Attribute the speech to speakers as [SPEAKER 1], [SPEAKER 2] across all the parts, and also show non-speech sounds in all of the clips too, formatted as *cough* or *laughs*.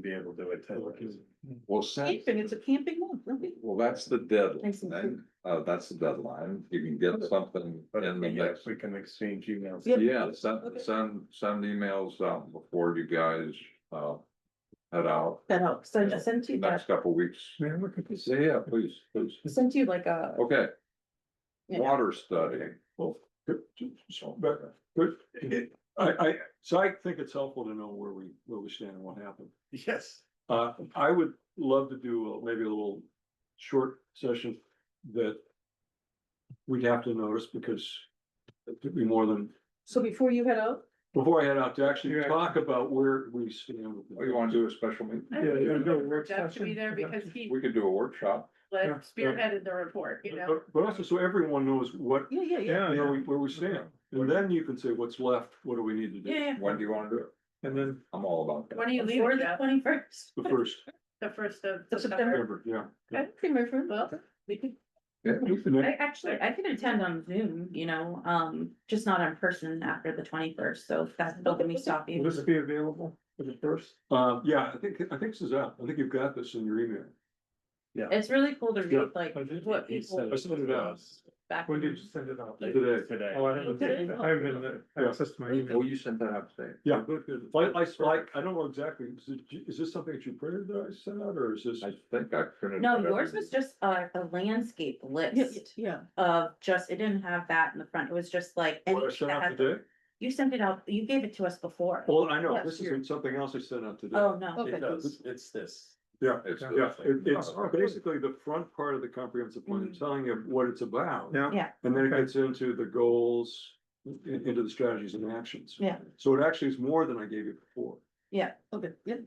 [SPEAKER 1] be able to attend.
[SPEAKER 2] Well, send,
[SPEAKER 3] Camping, it's a camping one, really?
[SPEAKER 2] well, that's the deadline,
[SPEAKER 3] Thanks, Lindsay.
[SPEAKER 2] then. uh, that's the deadline, you can get something
[SPEAKER 1] But
[SPEAKER 2] in the
[SPEAKER 1] yes,
[SPEAKER 2] next.
[SPEAKER 1] we can exchange emails.
[SPEAKER 3] Yep.
[SPEAKER 2] Yeah, send,
[SPEAKER 3] Okay.
[SPEAKER 2] send, send emails out before you guys, uh, head out,
[SPEAKER 3] That helps, I sent you
[SPEAKER 2] next
[SPEAKER 3] that,
[SPEAKER 2] couple weeks.
[SPEAKER 1] Yeah, look at this.
[SPEAKER 2] So, yeah, please, please,
[SPEAKER 3] sent you like a,
[SPEAKER 2] okay,
[SPEAKER 3] Yeah.
[SPEAKER 2] water study.
[SPEAKER 4] So, but, but, it- I, I, so I think it's helpful to know where we, where we stand and what happened.
[SPEAKER 1] Yes.
[SPEAKER 4] Uh, I would love to do a- maybe a little short session that. We'd have to notice because it took me more than,
[SPEAKER 3] so before you head out?
[SPEAKER 4] before I head out to actually
[SPEAKER 1] Yeah.
[SPEAKER 4] talk about where we stand. with
[SPEAKER 2] Oh, you wanna do a special meeting?
[SPEAKER 1] Yeah, you gotta do a work
[SPEAKER 3] Jeff should be
[SPEAKER 1] session.
[SPEAKER 3] there because he
[SPEAKER 2] We could do a workshop,
[SPEAKER 3] led-
[SPEAKER 1] Yeah.
[SPEAKER 3] spearheaded the report, you know?
[SPEAKER 4] But- But also, so everyone knows what,
[SPEAKER 3] Yeah, yeah, yeah,
[SPEAKER 1] Yeah,
[SPEAKER 4] where
[SPEAKER 1] yeah.
[SPEAKER 4] we, where we stand, and then you can say what's left, what do we need to
[SPEAKER 3] yeah,
[SPEAKER 4] do,
[SPEAKER 3] yeah.
[SPEAKER 2] when do you wanna do it?
[SPEAKER 1] And then,
[SPEAKER 2] I'm all about that.
[SPEAKER 3] When are you
[SPEAKER 5] Before
[SPEAKER 3] leaving,
[SPEAKER 5] the
[SPEAKER 3] Jeff?
[SPEAKER 5] twenty first,
[SPEAKER 4] the first,
[SPEAKER 5] the first of
[SPEAKER 3] Of
[SPEAKER 5] September.
[SPEAKER 3] September.
[SPEAKER 4] ever, yeah.
[SPEAKER 3] I think my friend, well, we could,
[SPEAKER 5] I actually, I can attend on Zoom, you know, um, just not in person after the twenty first, so if that's still gonna be
[SPEAKER 1] will
[SPEAKER 5] stopping.
[SPEAKER 1] this be available for the first?
[SPEAKER 4] Uh, yeah, I think, I think this is out, I think you've got this in your email.
[SPEAKER 5] It's really cool to
[SPEAKER 4] Yeah.
[SPEAKER 5] read like
[SPEAKER 1] I did-
[SPEAKER 5] what
[SPEAKER 1] he
[SPEAKER 5] people
[SPEAKER 1] sent
[SPEAKER 4] I sent it out.
[SPEAKER 5] back.
[SPEAKER 1] When did
[SPEAKER 5] in-
[SPEAKER 1] you send it out?
[SPEAKER 4] Today.
[SPEAKER 1] Today. Oh, I haven't, I haven't had access to my
[SPEAKER 2] Oh,
[SPEAKER 1] email.
[SPEAKER 2] you sent that out today?
[SPEAKER 4] Yeah. Like, I, like, I don't know exactly, is it- is this something that you printed that I sent out, or is this?
[SPEAKER 2] I think I printed.
[SPEAKER 5] No,
[SPEAKER 2] it.
[SPEAKER 5] yours was just a, a landscape
[SPEAKER 3] yeah,
[SPEAKER 5] list
[SPEAKER 3] yeah,
[SPEAKER 5] of just, it didn't have that in the front, it was just like.
[SPEAKER 4] What I
[SPEAKER 5] anything
[SPEAKER 4] sent
[SPEAKER 5] that
[SPEAKER 4] out
[SPEAKER 5] had-
[SPEAKER 4] today?
[SPEAKER 5] You sent it out, you gave it to us before.
[SPEAKER 4] Well, I know,
[SPEAKER 5] Last
[SPEAKER 4] this
[SPEAKER 5] year.
[SPEAKER 4] isn't something else I sent out today.
[SPEAKER 5] Oh, no,
[SPEAKER 3] okay.
[SPEAKER 1] it's this.
[SPEAKER 4] Yeah,
[SPEAKER 2] It's
[SPEAKER 1] Yeah.
[SPEAKER 4] yeah, it- it's
[SPEAKER 2] Oh, okay.
[SPEAKER 4] basically the front part of the comprehensive plan,
[SPEAKER 5] Mhm.
[SPEAKER 4] telling you what it's about.
[SPEAKER 1] Yeah.
[SPEAKER 5] Yeah.
[SPEAKER 4] And then it
[SPEAKER 1] Okay.
[SPEAKER 4] gets into the goals, i- into the strategies and actions.
[SPEAKER 5] Yeah.
[SPEAKER 4] So it actually is more than I gave you before.
[SPEAKER 5] yeah,
[SPEAKER 3] okay, yeah.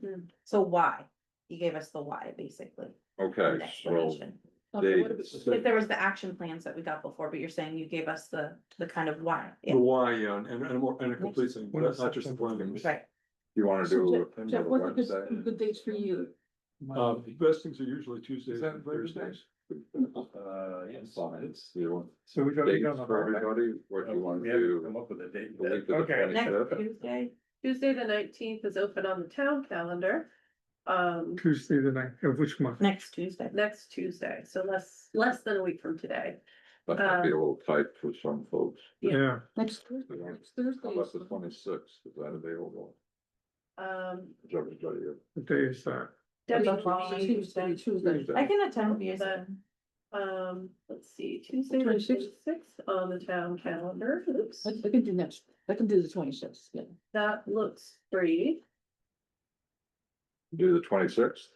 [SPEAKER 5] so why? You gave us the why, basically. an
[SPEAKER 2] Okay, so
[SPEAKER 5] explanation.
[SPEAKER 2] They-
[SPEAKER 3] Okay, what about-
[SPEAKER 5] If there was the action plans that we got before, but you're saying you gave us the, the kind of why,
[SPEAKER 4] The
[SPEAKER 5] yeah,
[SPEAKER 4] why, yeah, and, and, more- and a complete thing,
[SPEAKER 1] When is
[SPEAKER 4] not just the
[SPEAKER 1] September?
[SPEAKER 4] plan.
[SPEAKER 5] right,
[SPEAKER 2] you wanna
[SPEAKER 3] So
[SPEAKER 2] do.
[SPEAKER 3] Jeff- Jeff, what are the good, good dates for you?
[SPEAKER 4] Uh,
[SPEAKER 1] Um,
[SPEAKER 4] best things are usually Tuesdays
[SPEAKER 2] that
[SPEAKER 4] and
[SPEAKER 2] Labor Day?
[SPEAKER 4] Thursdays.
[SPEAKER 1] Uh, yes.
[SPEAKER 2] You
[SPEAKER 1] So we
[SPEAKER 2] want
[SPEAKER 1] don't, we
[SPEAKER 2] dates
[SPEAKER 1] don't know.
[SPEAKER 2] for everybody, what you wanna do?
[SPEAKER 1] Come up with a date.
[SPEAKER 2] the week of the
[SPEAKER 1] Okay.
[SPEAKER 2] 20th.
[SPEAKER 5] next
[SPEAKER 2] Okay.
[SPEAKER 5] Tuesday.
[SPEAKER 6] Tuesday, the nineteenth is open on the town calendar, um,
[SPEAKER 1] Tuesday the night, of which month?
[SPEAKER 5] Next Tuesday.
[SPEAKER 6] next Tuesday, so less, less than a week from today.
[SPEAKER 2] That might
[SPEAKER 3] Um,
[SPEAKER 2] be a little tight for some folks.
[SPEAKER 6] Yeah.
[SPEAKER 1] Yeah.
[SPEAKER 3] Next Thursday,
[SPEAKER 2] Yeah.
[SPEAKER 3] next Thursday.
[SPEAKER 2] How about the
[SPEAKER 3] is-
[SPEAKER 2] twenty-sixth, is that available?
[SPEAKER 6] Um,
[SPEAKER 2] Is everybody?
[SPEAKER 1] What day is uh, that?
[SPEAKER 6] Debbie,
[SPEAKER 5] That's all.
[SPEAKER 6] Judy,
[SPEAKER 3] Tuesday, Tuesday.
[SPEAKER 5] I can attend via
[SPEAKER 6] But-
[SPEAKER 5] Zoom.
[SPEAKER 6] um, let's see, Tuesday, the
[SPEAKER 3] 26th.
[SPEAKER 6] twenty-sixth on the town calendar, oops,
[SPEAKER 3] I I can do next, I can do the twenty-sixth, yeah.
[SPEAKER 6] that looks free.
[SPEAKER 2] Do the twenty-sixth?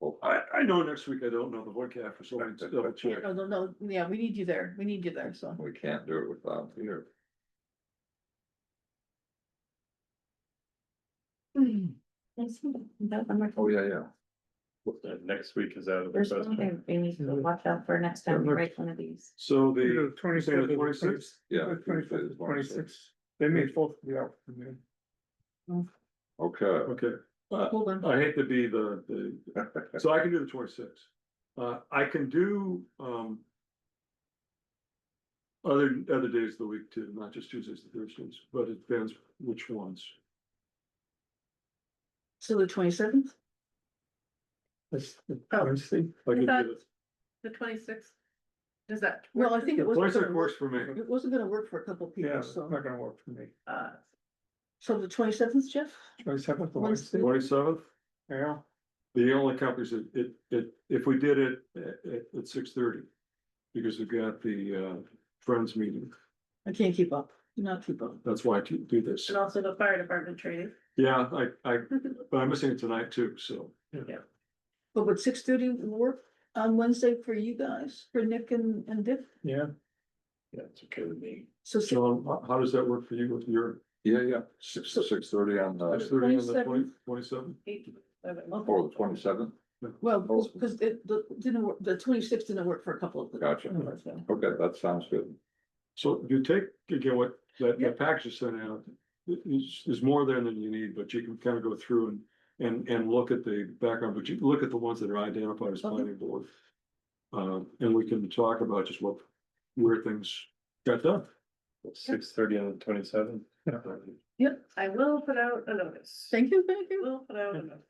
[SPEAKER 2] Well,
[SPEAKER 4] I, I know next week, I don't know the vocab for something to double check.
[SPEAKER 3] No, no, no, yeah, we need you there, we need you there, so.
[SPEAKER 2] we can't do it without you.
[SPEAKER 5] Yes, no, I'm not-
[SPEAKER 2] Oh, yeah, yeah.
[SPEAKER 1] Uh, Next week is out of the
[SPEAKER 5] There's
[SPEAKER 1] question.
[SPEAKER 5] something we need to watch out for next time, we write one of these.
[SPEAKER 4] So the,
[SPEAKER 1] The twenty-seventh,
[SPEAKER 4] the
[SPEAKER 1] twenty-sixth.
[SPEAKER 4] 26th?
[SPEAKER 2] Yeah, Tuesday the
[SPEAKER 1] Twenty-fifth,
[SPEAKER 2] 26th.
[SPEAKER 1] twenty-sixth. They may both be out for me.
[SPEAKER 2] Okay,
[SPEAKER 4] okay, Uh,
[SPEAKER 3] Hold on.
[SPEAKER 4] I hate to be the,
[SPEAKER 2] *laughs*
[SPEAKER 4] the, so I can do the twenty-six. Uh, I can do, um. Other, other days of the week too, not just Tuesdays and Thursdays, but it depends which ones.
[SPEAKER 3] So the twenty-seventh?
[SPEAKER 1] That's the
[SPEAKER 6] Oh.
[SPEAKER 1] Wednesday.
[SPEAKER 4] I can
[SPEAKER 6] That-
[SPEAKER 4] do
[SPEAKER 6] The twenty-sixth, does that?
[SPEAKER 3] Well, I think it
[SPEAKER 4] it.
[SPEAKER 3] was.
[SPEAKER 4] Twenty-six works for me.
[SPEAKER 3] It wasn't gonna work for a couple
[SPEAKER 1] Yeah,
[SPEAKER 3] people,
[SPEAKER 1] it's
[SPEAKER 3] so,
[SPEAKER 1] not gonna work for me.
[SPEAKER 6] Uh,
[SPEAKER 3] so the twenty-seventh, Jeff?
[SPEAKER 1] Twenty-seventh, the Wednesday.
[SPEAKER 3] Wednesday.
[SPEAKER 4] Twenty-seventh,
[SPEAKER 1] Yeah.
[SPEAKER 4] the only companies that it, it, if we did it eh, at, at six thirty. Because we've got the, uh, friends meeting,
[SPEAKER 3] I can't keep up, Do not keep up.
[SPEAKER 4] that's why I do do this.
[SPEAKER 6] and also the fire department training,
[SPEAKER 4] Yeah, I, I, but I'm missing it tonight too, so.
[SPEAKER 3] But would six thirty work on Wednesday for you guys, for Nick and, and Dick?
[SPEAKER 1] Yeah.
[SPEAKER 4] Yeah, it's okay with me.
[SPEAKER 3] So six-
[SPEAKER 4] So how, how does that work for you with your,
[SPEAKER 2] yeah, yeah, six, six thirty on
[SPEAKER 4] six
[SPEAKER 2] the,
[SPEAKER 4] thirty on the
[SPEAKER 3] 27th.
[SPEAKER 4] twenty, twenty-seven?
[SPEAKER 6] eight, seven.
[SPEAKER 2] for the twenty-seventh?
[SPEAKER 3] well, because, because it, the, didn't work, the twenty-sixth didn't work for a couple of. the-
[SPEAKER 2] Gotcha.
[SPEAKER 3] so.
[SPEAKER 2] Okay, that sounds good.
[SPEAKER 4] So you take, again, what that,
[SPEAKER 3] Yeah.
[SPEAKER 4] that package is sent out, there's, there's more there than you need, but you can kind of go through and. And, and look at the background, but you can look at the ones that are identified as
[SPEAKER 3] Okay.
[SPEAKER 4] planning board. Um, and we can talk about just what, where things got done.
[SPEAKER 1] Six thirty on the twenty-seventh.
[SPEAKER 3] Yep,
[SPEAKER 6] I will put out a notice,
[SPEAKER 3] thank you, thank you.
[SPEAKER 6] will put out a notice.